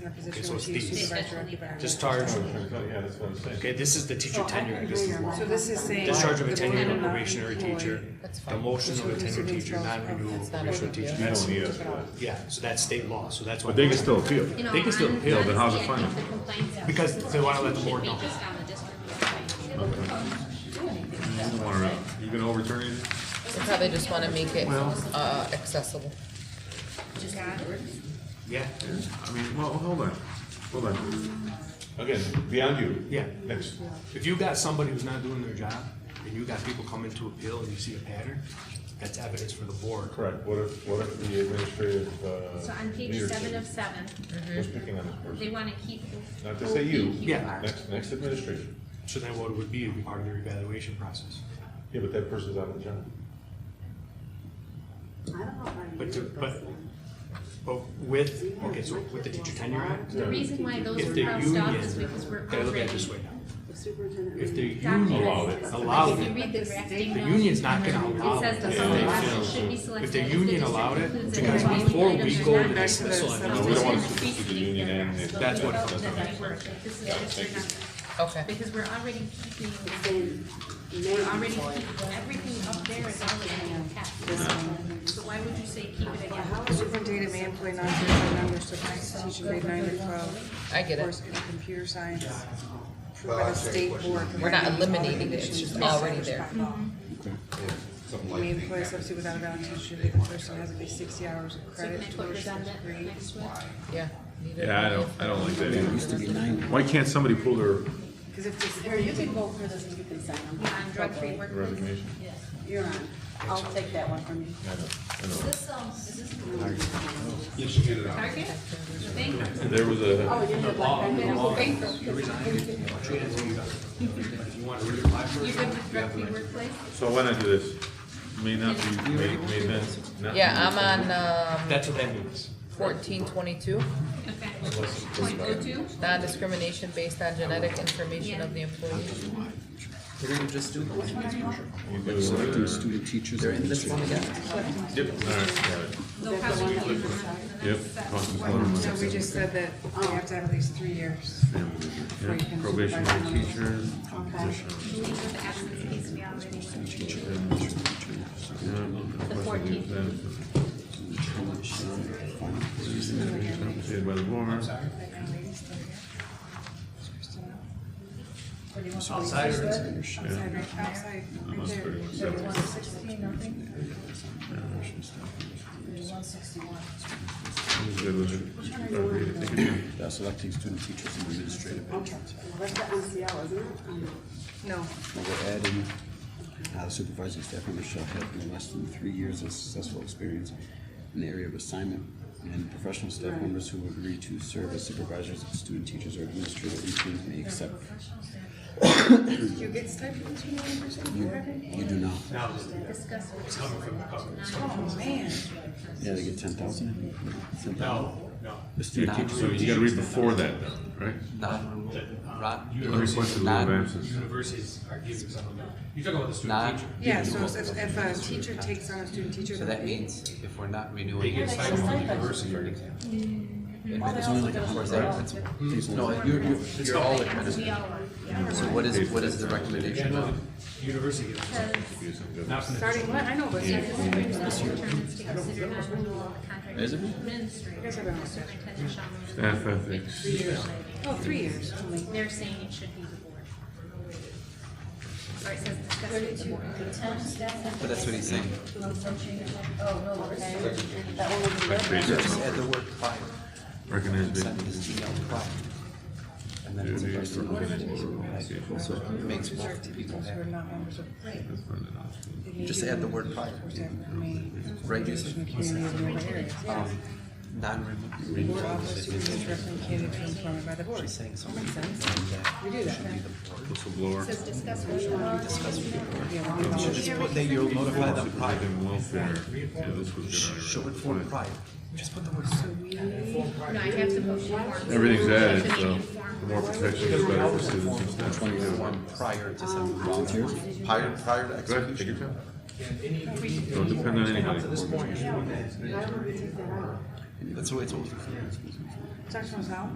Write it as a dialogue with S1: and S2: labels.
S1: in a position
S2: so
S1: where
S2: it's
S1: she's
S2: these.
S1: supervisor or occupier.
S2: Just charge,
S3: Yeah, that's what I'm saying.
S2: okay, this is the teacher tenure, this is
S1: So this is saying.
S2: discharge of a
S1: the
S2: tenure
S1: board
S2: of
S1: not
S2: probationary
S1: employ-
S2: teacher,
S4: That's fine.
S2: demotion of a
S1: Supervisor
S2: tenured teacher,
S1: themselves.
S2: non-renewal of
S1: That's
S2: a
S1: not
S2: probationary
S1: a-
S2: teacher,
S3: You
S2: that's,
S3: don't need us,
S1: Took it off.
S2: yeah, so that's state law, so that's why.
S5: But they can still appeal.
S6: You know,
S2: They can still
S6: honestly,
S2: appeal,
S5: then how's it
S6: I think
S5: final?
S6: the complaints
S2: Because they wanna let the board
S6: should
S2: know.
S6: be just on the district.
S5: You don't wanna- You gonna overturn it?
S4: They probably just wanna make it, uh, accessible.
S2: Yeah,
S5: I mean, well, hold on, hold on.
S3: Again, beyond you.
S2: yeah.
S3: Next.
S2: If you got somebody who's not doing their job, and you got people coming to appeal and you see a pattern, that's evidence for the board.
S3: Correct, what if, what if the administrative, uh.
S6: So on page
S3: leadership
S6: seven of seven,
S3: Was picking on this
S6: they
S3: person.
S6: wanna keep.
S3: Not to say you.
S6: who
S2: Yeah.
S6: are.
S3: Next, next administration.
S2: So then what it would be, would be part of their evaluation process.
S3: Yeah, but that person's out of the job.
S2: But, to- but, but with, okay, so with the teacher tenure act,
S6: The reason why those
S2: if
S6: are
S2: the
S6: crossed
S2: union,
S6: off is because we're
S2: gotta look at it
S6: already.
S2: this way now. If the union
S6: Allowed it.
S2: allowed
S6: If you
S2: it,
S6: read the drafting
S2: the
S6: notes,
S2: union's not gonna allow
S6: It says
S2: it.
S6: the
S2: if
S6: following
S2: they feel-
S6: options should be selected.
S2: If the
S6: if
S2: union
S6: district
S2: allowed it,
S6: concludes that
S2: because
S6: the following
S2: before
S6: items
S2: we
S6: are
S2: go to
S6: not
S1: back to
S2: dismissal,
S1: the
S2: of
S3: No,
S2: an
S3: we don't
S2: emergency-
S3: wanna speak to the union and. if-
S2: That's what-
S6: That's This is just for nothing.
S4: Okay.
S6: Because we're already keeping,
S7: We're
S6: we're already keeping, everything up there is already in text. So why would you say keep it again?
S1: The Superintendent may employ non-certified members to finance teaching grade nine to twelve.
S4: I get it.
S1: Course in computer science, approved by the state board.
S4: We're
S1: providing
S4: not
S1: all the
S4: eliminating it, it's
S1: conditions
S4: just already there.
S1: May employ a substitute without a valid teacher, the person has at least sixty hours of
S6: So can
S1: credit
S6: I
S1: to
S6: put this on
S1: additional
S6: that
S1: degree.
S6: next one?
S4: Yeah. leave it.
S5: Yeah, I don't, I don't like that either. Why can't somebody pull their,
S1: Because if this,
S7: Here, you can vote for this and you can sign them.
S6: Yeah, on drug-free workplace.
S3: Resignation.
S7: You're on. I'll take that one from you.
S3: I know, I know.
S6: This, um, is this Target? The bank?
S3: There was a,
S7: you did like that.
S2: If you want to reapply for
S6: You
S2: it,
S6: good with drug-free workplace?
S3: so why not do this? May not be, may, may not. not be-
S4: Yeah, I'm on, um,
S2: that's what that means.
S4: fourteen twenty-two,
S6: Point oh two?
S4: non-discrimination based on genetic information of the employee.
S8: We're gonna just do blank exposure.
S3: You do, uh,
S8: Student teachers. They're in this one again.
S3: Yep, all right, got it.
S6: They'll probably be in the-
S5: yep,
S1: so we just said that you have to have at least three years. Before you can
S5: probationary
S1: supervise someone.
S5: teacher,
S6: Leave with the absence case we already went through.
S3: The
S6: fourteenth.
S3: Paid by the board.
S2: Outside or inside?
S1: Outside, right, outside, right
S3: That's
S1: there.
S3: pretty much it. I'm good with it. Okay, take it.
S8: Yeah, Uh, selecting student teachers and administrative interns.
S7: That's the MCL, isn't it? Um,
S1: No,
S8: Now We're adding, uh, the supervising staff member shall have no less than three years of successful experience in the area of assignment, and professional staff members who agree to serve as supervisors, student teachers, or administrative interns may accept.
S1: do you get stipends from one person?
S8: You do not.
S2: It's coming from the government.
S1: Oh, man.
S8: Yeah, they get ten thousand.
S2: No, no.
S8: The
S5: Yeah,
S8: student
S5: so you gotta read before that though, right?
S8: Non,
S5: Requested leave of absence.
S2: Universities are giving some of that. You're talking about the
S9: Not-
S2: student teacher.
S1: Yeah, so if, if a teacher takes on a student teacher.
S9: So that means if we're not
S2: They
S9: renewing
S2: get
S9: it,
S2: signed from the university, for example.
S8: It's only like a hundred, that's, it's
S9: no,
S8: only
S9: you're, you're, you're all
S6: We
S9: administrative.
S6: all were.
S9: So what is, what is the recommendation now?
S2: University gives them something. Not from the.
S1: Starting what? I know, but.
S6: This is the term is to consider non-renewal of contract.
S8: Is it?
S6: Administrator, superintendent shall remove
S5: Staff ethics.
S6: three years later.
S1: Oh, three years only.
S6: They're saying it should be the board. Or it says discuss with the board.
S9: But that's what he's saying.
S6: Oh,
S9: Just add the word prior,
S5: Recognized
S9: send
S5: victims.
S9: this email prior. And then it's a
S5: Duties
S9: person.
S5: for organizational association.
S9: So it makes both people
S1: Who are
S9: happy.
S1: not members of.
S9: Just add the word prior, right, just, um,
S1: Board
S9: non-renewal.
S1: office superintendent recommend candidate to employment by the board.
S9: She's saying something.
S1: Makes sense. We do that. then.
S5: Whistleblower.
S6: Says discuss with the board.
S1: Yeah, we're on the
S9: Should
S1: board.
S9: just put that you'll notify them prior,
S5: Protecting welfare. Yeah, this was
S9: show
S5: good.
S9: it for prior. Just put the word soon.
S6: No, I have to post forms.
S5: Everything's added,
S6: Should be
S5: so
S6: informed.
S5: the more protection, the better for students and staff.
S9: Twenty one prior to sending volunteers, prior, prior to
S5: Go ahead, take your
S9: execution.
S5: time. Don't depend on anybody.
S2: This point,
S7: Why would we take that out?
S8: and
S9: That's the way it's always been.
S8: Excuse me.
S1: Dr. Mizell?